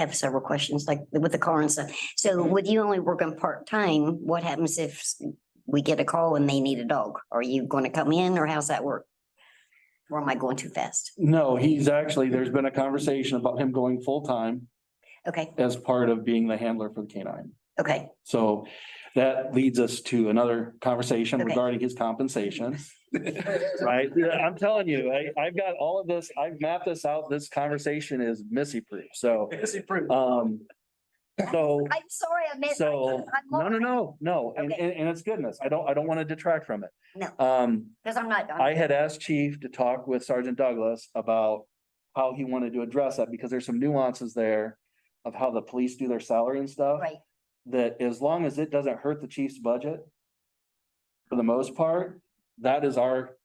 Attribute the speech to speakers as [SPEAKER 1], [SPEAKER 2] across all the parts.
[SPEAKER 1] have several questions, like with the car and stuff. So with you only working part-time, what happens if we get a call and they need a dog? Are you going to come in or how's that work? Or am I going too fast?
[SPEAKER 2] No, he's actually, there's been a conversation about him going full-time
[SPEAKER 1] Okay,
[SPEAKER 2] as part of being the handler for the canine.
[SPEAKER 1] okay,
[SPEAKER 2] So that leads us to another conversation
[SPEAKER 1] Okay.
[SPEAKER 2] regarding his compensation. Right? Yeah, I'm telling you, I, I've got all of this, I've mapped this out. This conversation is missy proof, so, um. So,
[SPEAKER 1] I'm sorry, I missed.
[SPEAKER 2] so, no, no, no, no, and,
[SPEAKER 1] Okay.
[SPEAKER 2] and, and it's goodness. I don't, I don't want to detract from it.
[SPEAKER 1] No.
[SPEAKER 2] Um,
[SPEAKER 1] Because I'm not,
[SPEAKER 2] I had asked chief to talk with Sergeant Douglas about how he wanted to address that, because there's some nuances there of how the police do their salary and stuff,
[SPEAKER 1] right,
[SPEAKER 2] that as long as it doesn't hurt the chief's budget, for the most part, that is our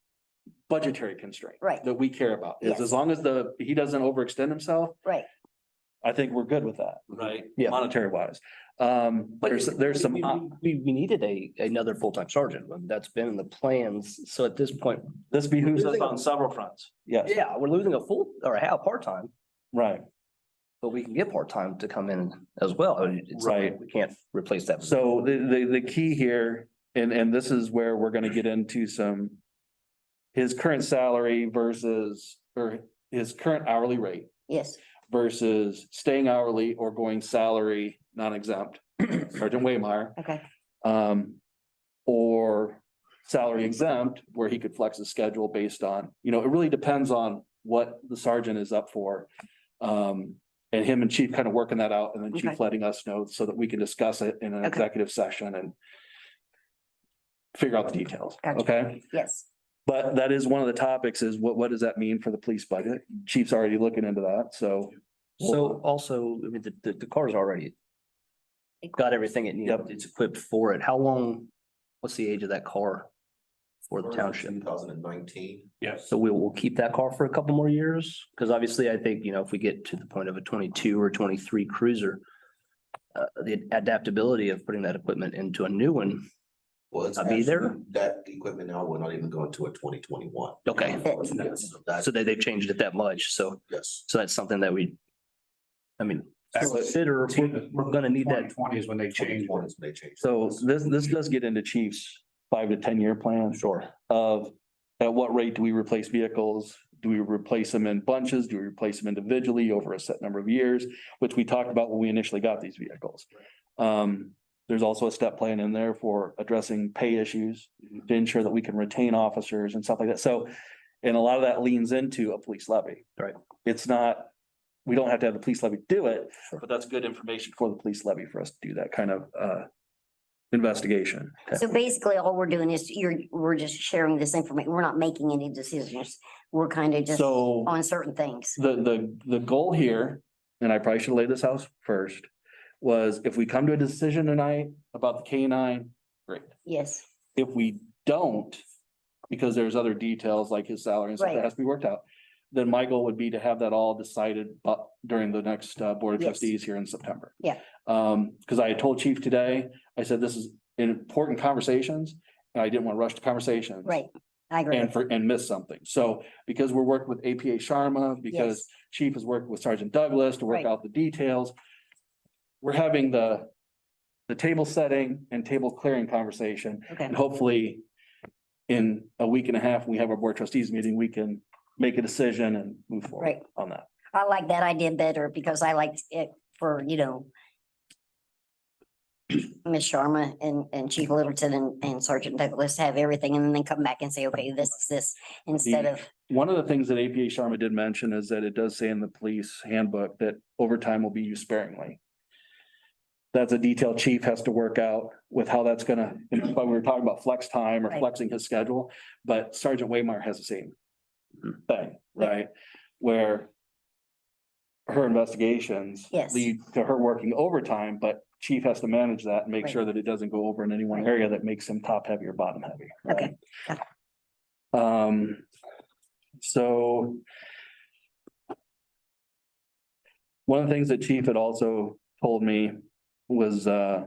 [SPEAKER 2] budgetary constraint
[SPEAKER 1] right,
[SPEAKER 2] that we care about, is
[SPEAKER 1] Yes.
[SPEAKER 2] as long as the, he doesn't overextend himself,
[SPEAKER 1] right.
[SPEAKER 2] I think we're good with that,
[SPEAKER 3] Right.
[SPEAKER 2] Yeah. monetary wise. Um,
[SPEAKER 3] But
[SPEAKER 2] there's, there's some.
[SPEAKER 3] we- We, we needed a, another full-time sergeant. and That's been in the plans. So at this point,
[SPEAKER 2] This behooves us
[SPEAKER 3] Losing
[SPEAKER 2] on several fronts. Yes,
[SPEAKER 3] yeah, we're losing a full or a half part-time,
[SPEAKER 2] right.
[SPEAKER 3] but we can get part-time to come in as well. I mean, it's not like
[SPEAKER 2] Right.
[SPEAKER 3] We can't replace that.
[SPEAKER 2] So the, the, the key here, and, and this is where we're gonna get into some. His current salary versus, or his current hourly rate
[SPEAKER 1] Yes,
[SPEAKER 2] versus staying hourly or going salary, non-exempt. Sergeant Waymire,
[SPEAKER 1] okay,
[SPEAKER 2] um, or salary exempt, where he could flex his schedule based on, you know, it really depends on what the sergeant is up for. Um, and him and chief kind of working that out and then
[SPEAKER 1] Okay.
[SPEAKER 2] chief letting us know so that we can discuss it in an
[SPEAKER 1] Okay.
[SPEAKER 2] executive session and figure out the details,
[SPEAKER 1] Gotcha.
[SPEAKER 2] okay?
[SPEAKER 1] yes,
[SPEAKER 2] But that is one of the topics is what, what does that mean for the police budget? Chief's already looking into that, so.
[SPEAKER 3] So also, I mean, the, the, the car's already got everything it needs.
[SPEAKER 2] Yep.
[SPEAKER 3] It's equipped for it. How long, what's the age of that car for the township?
[SPEAKER 4] Two thousand and nineteen.
[SPEAKER 2] Yes.
[SPEAKER 3] So we will keep that car for a couple more years, because obviously I think, you know, if we get to the point of a twenty-two or twenty-three cruiser. Uh, the adaptability of putting that equipment into a new one,
[SPEAKER 4] Well, it's
[SPEAKER 3] I'll be there.
[SPEAKER 4] actually- That equipment now, we're not even going to a twenty twenty one.
[SPEAKER 3] okay, so they, they've changed it that much, so,
[SPEAKER 4] Yes.
[SPEAKER 3] so that's something that we. I mean, consider, we're, we're gonna need that,
[SPEAKER 5] Twenty is when they change.
[SPEAKER 4] 2021 is when they change.
[SPEAKER 2] So this, this does get into chief's five to ten year plan.
[SPEAKER 3] sure,
[SPEAKER 2] of at what rate do we replace vehicles? Do we replace them in bunches? Do we replace them individually over a set number of years? Which we talked about when we initially got these vehicles. Um, there's also a step plan in there for addressing pay issues
[SPEAKER 3] Mm-hmm.
[SPEAKER 2] to ensure that we can retain officers and stuff like that. So, and a lot of that leans into a police levy.
[SPEAKER 3] Right.
[SPEAKER 2] It's not, we don't have to have the police levy do it,
[SPEAKER 3] Sure.
[SPEAKER 2] but that's good information for the police levy for us to do that kind of, uh, investigation.
[SPEAKER 1] so basically all we're doing is you're, we're just sharing this information, we're not making any decisions. We're kind of just
[SPEAKER 2] So.
[SPEAKER 1] on certain things,
[SPEAKER 2] The, the, the goal here, and I probably should lay this out first, was if we come to a decision tonight about the K nine, great.
[SPEAKER 1] yes,
[SPEAKER 2] If we don't, because there's other details like his salary and stuff
[SPEAKER 1] Right.
[SPEAKER 2] that has to be worked out, then my goal would be to have that all decided but during the next uh Board of
[SPEAKER 1] Yes.
[SPEAKER 2] Trustees here in September.
[SPEAKER 1] Yeah.
[SPEAKER 2] Um, because I had told Chief today, I said this is important conversations, and I didn't want to rush the conversations
[SPEAKER 1] right, I agree.
[SPEAKER 2] and for, and miss something. So because we're working with APA Sharma, because Chief has worked with Sergeant Douglas to work
[SPEAKER 1] Right.
[SPEAKER 2] out the details. We're having the, the table setting and table clearing conversation,
[SPEAKER 1] Okay,
[SPEAKER 2] and hopefully in a week and a half, we have our board trustees meeting, we can make a decision and move forward
[SPEAKER 1] Right.
[SPEAKER 2] on that.
[SPEAKER 1] I like that idea better because I liked it for, you know, Ms. Sharma and, and Chief Littleton and- and Sergeant Douglas have everything and then come back and say, okay, this is this, instead
[SPEAKER 2] The-
[SPEAKER 1] of,
[SPEAKER 2] One of the things that APA Sharma did mention is that it does say in the police handbook that overtime will be used sparingly. That's a detail chief has to work out with how that's gonna, and that's why we were talking about flex time or
[SPEAKER 1] Right.
[SPEAKER 2] flexing his schedule, but Sergeant Waymire has the same
[SPEAKER 3] Mhm.
[SPEAKER 2] thing, right? Where her investigations
[SPEAKER 1] Yes.
[SPEAKER 2] lead to her working overtime, but chief has to manage that and make
[SPEAKER 1] Right.
[SPEAKER 2] sure that it doesn't go over in any one
[SPEAKER 1] Right.
[SPEAKER 2] area that makes him top heavy or bottom heavy. right?
[SPEAKER 1] Okay, got
[SPEAKER 2] Um, so. One of the things that chief had also told me was, uh,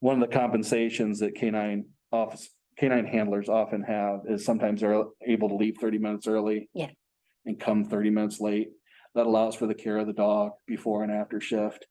[SPEAKER 2] one of the compensations that canine office, canine handlers often have is sometimes they're able to leave thirty minutes early.
[SPEAKER 1] Yeah.
[SPEAKER 2] And come thirty minutes late. that allows for the care of the dog before and after shift.